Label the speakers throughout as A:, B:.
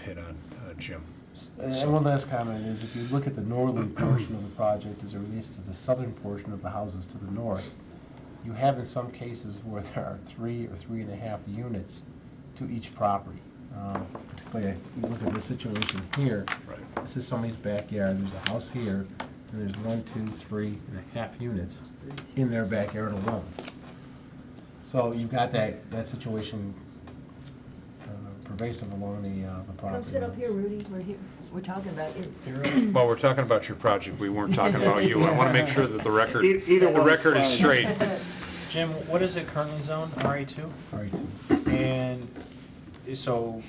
A: hit on uh, Jim.
B: And
A: So-
B: and one last comment is, if you look at the northern portion of the project as it relates to the southern portion of the houses to the north, you have in some cases where there are three or three and a half units to each property. Um, Particularly, you look at the situation here,
A: Right.
B: this is somebody's backyard, there's a house here, and there's one, two, three and a half units in their backyard alone. So you've got that, that situation uh, pervasive along the, uh, the property.
C: Come sit up
B: lines.
C: here, Rudy, we're here, we're talking about you.
A: Well, we're talking about your project, we weren't talking about you. I want to make sure that the record,
D: E- either
A: the
D: one's
A: record is
D: fine.
A: straight.
E: Jim, what is it currently zoned, RA2?
B: All right.
E: And so,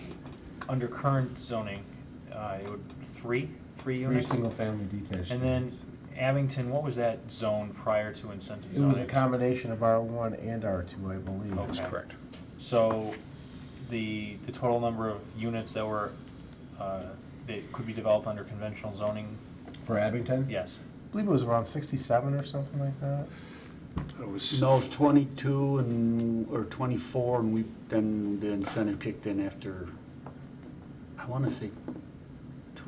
E: under current zoning, uh, it would, three, three
B: Three
E: units?
B: single-family detached.
E: And then
B: units.
E: Abington, what was that zone prior to incentive
B: It
E: zoning?
B: was a combination of R1 and R2, I believe.
A: That's
E: Okay.
A: correct.
E: So, the, the total number of units that were, uh, that could be developed under conventional zoning,
B: For Abington?
E: yes.
B: I believe it was around 67 or something like that.
A: It was,
D: No, it's 22 and, or 24, and we, then the incentive kicked in after, I want to say, tw-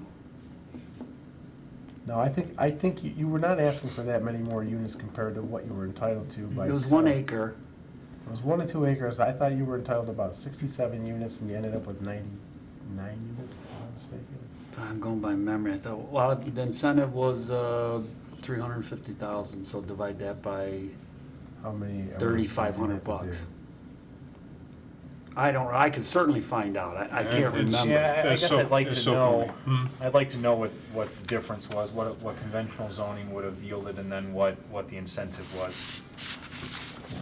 B: No, I think, I think you you were not asking for that many more units compared to what you were entitled to by.
D: it was one
B: code.
D: acre.
B: It was one and two acres. I thought you were entitled to about 67 units, and you ended up with 99 units, if I'm not mistaken.
D: I'm going by memory. I thought, well, the incentive was uh, 350,000, so divide that by,
B: How many? are we-
D: 3,500 bucks. I don't, I could certainly find out. I I
A: And
D: can't
A: it's-
D: remember.
E: Yeah, I- I
A: It's
E: guess
A: so-
E: I'd like
A: it's
E: to
A: so
E: know, Hmm.
A: funny.
E: I'd like to know what, what the difference was, what, what conventional zoning would have yielded, and then what, what the incentive was.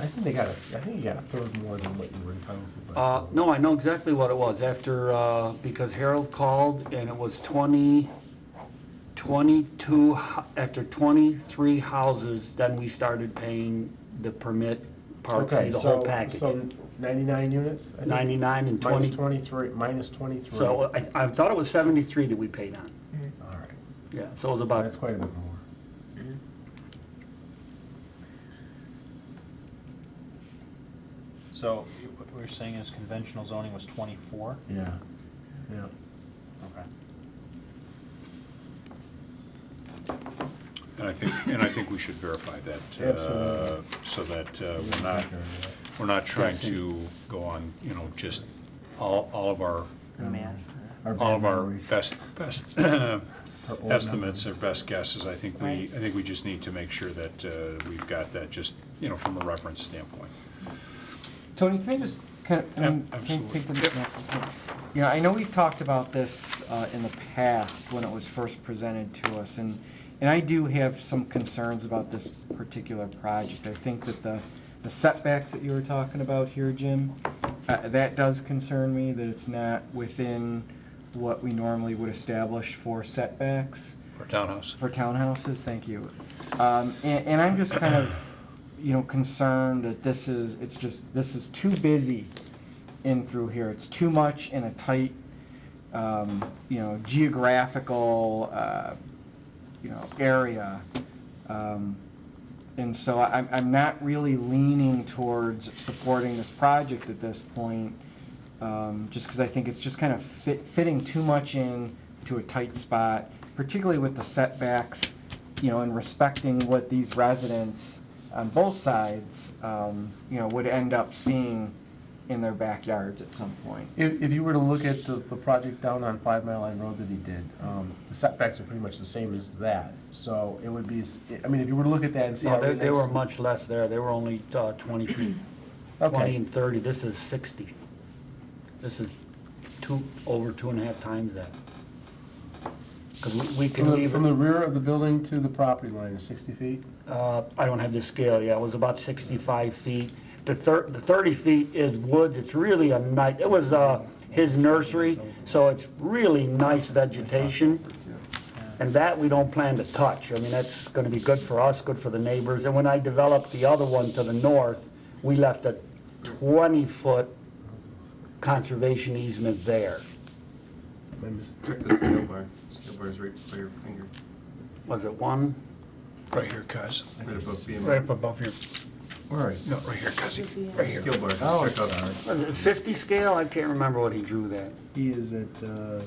B: I think they got, a- I think you got a third more than what you were entitled to. by
D: Uh,
B: code.
D: No, I know exactly what it was after, uh, because Harold called and it was 20, 22, hou- after 23 houses, then we started paying the permit part
B: Okay,
D: fee, the whole
B: so-
D: package.
B: So 99 units? I think?
D: 99 and
B: Minus
D: 20.
B: 23, minus 23.
D: So
B: All
D: I I thought it was 73 that we paid on.
B: right,
D: Yeah, so it was
B: so
D: about
B: that's quite a bit more.
E: So, you- what we're saying is conventional zoning was 24?
B: Yeah, yeah.
E: Okay.
A: and I think, and I think we should verify that, uh,
B: Absolutely.
A: so that uh, we're not, we're not trying to go on, you know, just all, all of our, all of our best, best
B: Our old
A: estimates or
B: numbers.
A: best guesses. I think we, I
C: Right.
A: think we just need to make sure that uh, we've got that just, you know, from a reference standpoint.
F: Tony, can I just, can, I
A: Ab-
F: mean, can I take the?
A: absolutely. Yep.
F: yeah, Yeah, I know we've talked about this uh, in the past when it was first presented to us, and, and I do have some concerns about this particular project. I think that the the setbacks that you were talking about here, Jim, uh, that does concern me, that it's not within what we normally would establish for setbacks.
A: For townhouse.
F: For townhouses, thank you. Um, and, and I'm just kind of, you know, concerned that this is, it's just, this is too busy in through here. It's too much in a tight, um, you know, geographical, uh, you know, area. Um, and so I, I'm- I'm not really leaning towards supporting this project at this point, um, just because I think it's just kind of fit, fitting too much in to a tight spot, particularly with the setbacks, you know, and respecting what these residents on both sides, um, you know, would end up seeing in their backyards at some point.
B: If, if you were to look at the, the project down on Five Mile Line Road that he did, um, the setbacks are pretty much the same as that. So it would be, s- I mean, if you were to look at that and see
D: No,
B: how.
D: they,
B: it
D: they were
B: relates-
D: much less there. They were only uh, 23, 20
B: Okay,
D: and 30. This is 60. This is two, over two and a half times that. Because we
B: from
D: can
B: the,
D: leave,
B: from the
D: it-
B: rear of the building to the property line is 60 feet?
D: uh, I don't have the scale, yeah, it was about 65 feet. The thir, the 30 feet is woods, it's really a nice, it was uh, his nursery, so it's really nice vegetation. And that we don't plan to touch. I mean, that's going to be good for us, good for the neighbors. And when I developed the other one to the north, we left a 20-foot conservation easement there.
G: Check the scale bar. Scale bar is right by your finger.
D: Was it one?
A: Right here, guys.
G: Right above BMI.
A: Right up above your
B: Where are you?
A: No, right here, Cuzzy, right here.
G: Scale bar.
B: Oh,
G: Check out.
B: sorry.
D: Was it 50 scale? I can't remember what he drew that.
B: He is at, uh,